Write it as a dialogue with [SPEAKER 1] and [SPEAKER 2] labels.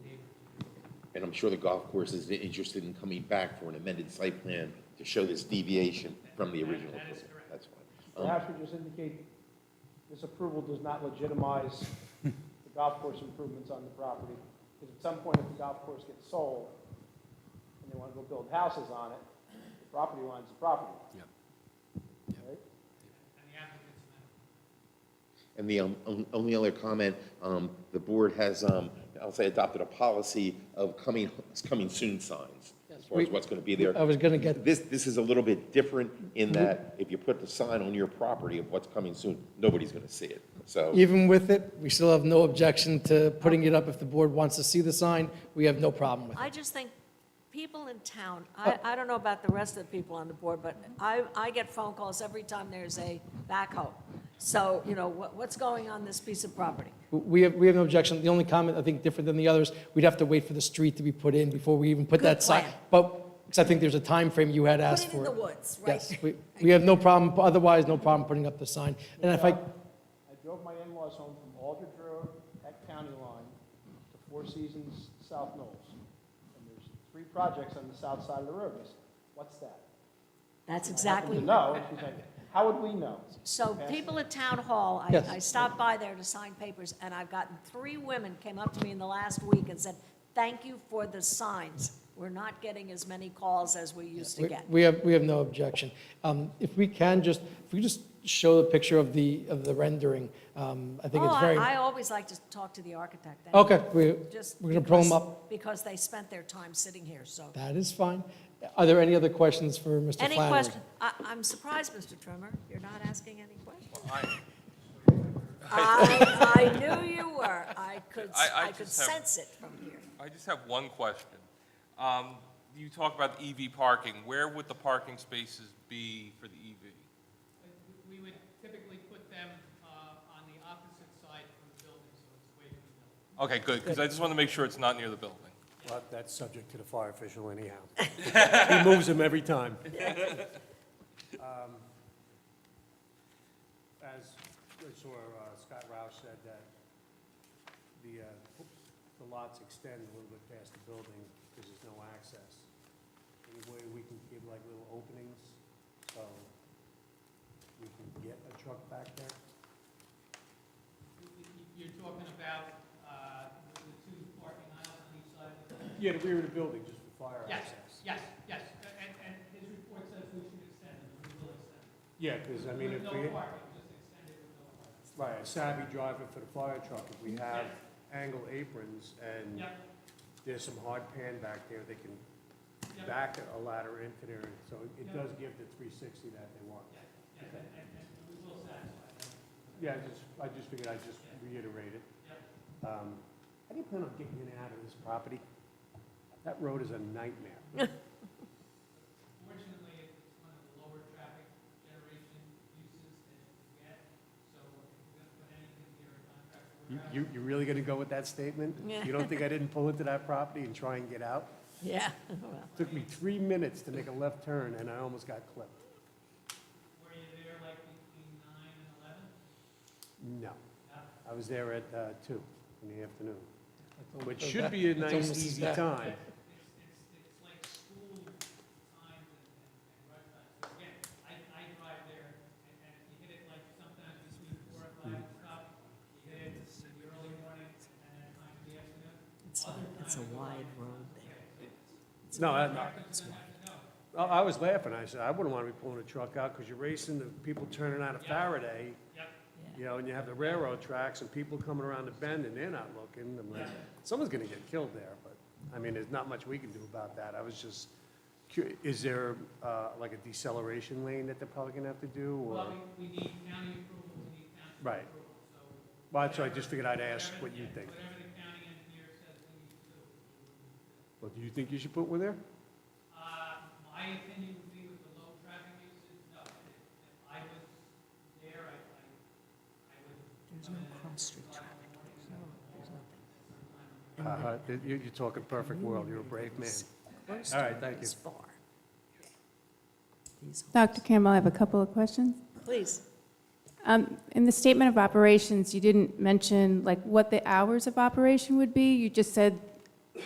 [SPEAKER 1] and I'm sure the golf course is interested in coming back for an amended site plan to show this deviation from the original.
[SPEAKER 2] That is
[SPEAKER 1] approval.
[SPEAKER 2] correct.
[SPEAKER 1] That's fine. Um,
[SPEAKER 3] Perhaps we just indicate this approval does not legitimize the golf course improvements on the property. Because at some point, if the golf course gets sold and they want to go build houses on it, the property line's the property.
[SPEAKER 4] Yep.
[SPEAKER 3] Right?
[SPEAKER 2] And the applicant's amendment.
[SPEAKER 1] And the um, on- only other comment, um, the board has, um, I'll say, adopted a policy of coming, coming soon signs, as far as
[SPEAKER 4] We-
[SPEAKER 1] what's going to be there.
[SPEAKER 4] I was going to get,
[SPEAKER 1] This, this is a little bit different in that if you put the sign on your property of what's coming soon, nobody's going to see it. So,
[SPEAKER 4] even with it, we still have no objection to putting it up. If the board wants to see the sign, we have no problem with it.
[SPEAKER 5] I just think people in town, I,
[SPEAKER 4] Oh.
[SPEAKER 5] I don't know about the rest of the people on the board, but I, I get phone calls every time there's a backhoe. So, you know, what, what's going on this piece of property?
[SPEAKER 4] We have, we have no objection. The only comment, I think, different than the others, we'd have to wait for the street to be put in before we even put
[SPEAKER 5] Good
[SPEAKER 4] that sign.
[SPEAKER 5] plan.
[SPEAKER 4] But, because I think there's a time frame you had
[SPEAKER 5] Put
[SPEAKER 4] asked
[SPEAKER 5] it
[SPEAKER 4] for.
[SPEAKER 5] in the woods, right?
[SPEAKER 4] Yes, we, we have no problem, otherwise, no problem putting up the sign. And if I,
[SPEAKER 3] I drove my in-laws home from Aldridge Road at County Line to Four Seasons South Knolls. And there's three projects on the south side of the road. I said, what's that?
[SPEAKER 5] That's
[SPEAKER 3] I
[SPEAKER 5] exactly,
[SPEAKER 3] happened to know, and she's like, how would we know?
[SPEAKER 5] so people at town hall, I,
[SPEAKER 4] Yes.
[SPEAKER 5] I stopped by there to sign papers, and I've gotten, three women came up to me in the last week and said, thank you for the signs. We're not getting as many calls as we used to
[SPEAKER 4] we-
[SPEAKER 5] get.
[SPEAKER 4] we have, we have no objection. Um, If we can just, if we just show the picture of the, of the rendering, um, I think
[SPEAKER 5] Oh,
[SPEAKER 4] it's very.
[SPEAKER 5] I, I always like to talk to the architect. Thank you.
[SPEAKER 4] Okay, we,
[SPEAKER 5] Just
[SPEAKER 4] we're going to pull them
[SPEAKER 5] because-
[SPEAKER 4] up.
[SPEAKER 5] Because they spent their time sitting here, so.
[SPEAKER 4] That is fine. Are there any other questions for Mr. Flannery?
[SPEAKER 5] Any question, I, I'm surprised, Mr. Trimmer, you're not asking any questions. I, I knew you were, I could, s-
[SPEAKER 6] I- I
[SPEAKER 5] I could
[SPEAKER 6] just have-
[SPEAKER 5] sense it from here.
[SPEAKER 6] I just have one question. Um, You talk about the EV parking. Where would the parking spaces be for the E EV?
[SPEAKER 2] Uh, We would typically put them uh, on the opposite side from the building, so it's away from the
[SPEAKER 6] Okay,
[SPEAKER 2] building.
[SPEAKER 6] good, because I just want to make sure it's not near the building.
[SPEAKER 7] Well, that's subject to the fire official anyhow. He moves them every time. Um, As, as or uh, Scott Roush said, that the, uh, the lots extend a little bit past the building because there's no access. Any way we can give like little openings so we can get a truck back there?
[SPEAKER 2] You- you- You're talking about uh, the the two parking aisles on each side of the building?
[SPEAKER 7] Yeah, the rear of the building, just for fire
[SPEAKER 2] Yes,
[SPEAKER 7] access.
[SPEAKER 2] yes, yes, and, and his report says we should extend it, we will extend it.
[SPEAKER 7] Yeah, because I mean, if
[SPEAKER 2] With
[SPEAKER 7] we.
[SPEAKER 2] no parking, just extend it with no parking.
[SPEAKER 7] Right, a savvy driver for the fire truck, if we have angle aprons and
[SPEAKER 2] Yep,
[SPEAKER 7] there's some hard pan back there, they can
[SPEAKER 2] yep, yes,
[SPEAKER 7] back a ladder into there, so it does give the three sixty that they want.
[SPEAKER 2] yes, and, and and we will satisfy that.
[SPEAKER 7] Yeah, I just, I just figured I'd just reiterate it. Um, How do you plan on getting in and out of this property? That road is a nightmare.
[SPEAKER 2] Fortunately, it's one of the lower traffic generation uses that you can get, so if we're going to put anything here in contract
[SPEAKER 7] You-
[SPEAKER 2] warehouse.
[SPEAKER 7] You, you really gonna go with that statement?
[SPEAKER 5] Yeah.
[SPEAKER 7] You don't think I didn't pull into that property and try and get out?
[SPEAKER 5] Yeah, well,
[SPEAKER 7] Took me three minutes to make a left turn and I almost got clipped.
[SPEAKER 2] Were you there like between nine and eleven?
[SPEAKER 7] No.
[SPEAKER 2] Yeah.
[SPEAKER 7] I was there at uh, two in the afternoon,
[SPEAKER 4] almost
[SPEAKER 7] which
[SPEAKER 4] as
[SPEAKER 7] should
[SPEAKER 4] bad.
[SPEAKER 7] be a
[SPEAKER 4] It's
[SPEAKER 7] nice,
[SPEAKER 4] almost as
[SPEAKER 7] easy
[SPEAKER 4] bad.
[SPEAKER 7] time.
[SPEAKER 2] It's, it's, it's like school times and, and, and rush times. So again, I, I drive there, and, and if you hit it like sometimes between four and five
[SPEAKER 7] Mm-hmm.
[SPEAKER 2] and stuff, you hit it in the early morning and then time in the afternoon.
[SPEAKER 5] it's, it's a wide road there.
[SPEAKER 7] No, I, I I was laughing. I said, I wouldn't want to be pulling a truck out because you're racing the people turning out of Faraday, you know, and you have the railroad tracks and people coming around the bend and they're not looking. I'm like, someone's going to get killed there, but, I mean, there's not much we can do about that. I was just, cu- is there uh, like a deceleration lane that they're probably going to have to do or?
[SPEAKER 2] Well, we, we need county approval, we need county
[SPEAKER 7] Right.
[SPEAKER 2] approval, so.
[SPEAKER 7] Well, that's why I just figured I'd ask what you think.
[SPEAKER 2] Whatever the county engineer says we need to do.
[SPEAKER 7] Well, do you think you should put one there?
[SPEAKER 2] Uh, my opinion would be with the low traffic usage, no, if, if I was there, I, I, I would
[SPEAKER 5] There's no cross-street traffic. No, there's
[SPEAKER 7] Uh, you- You're talking perfect world, you're a brave man.
[SPEAKER 5] nothing.
[SPEAKER 7] All right, thank you.
[SPEAKER 5] It's far. These homes.
[SPEAKER 8] Dr. Campbell, I have a couple of questions.
[SPEAKER 5] Please,
[SPEAKER 8] Um, In the statement of operations, you didn't mention, like, what the hours of operation would be. You just said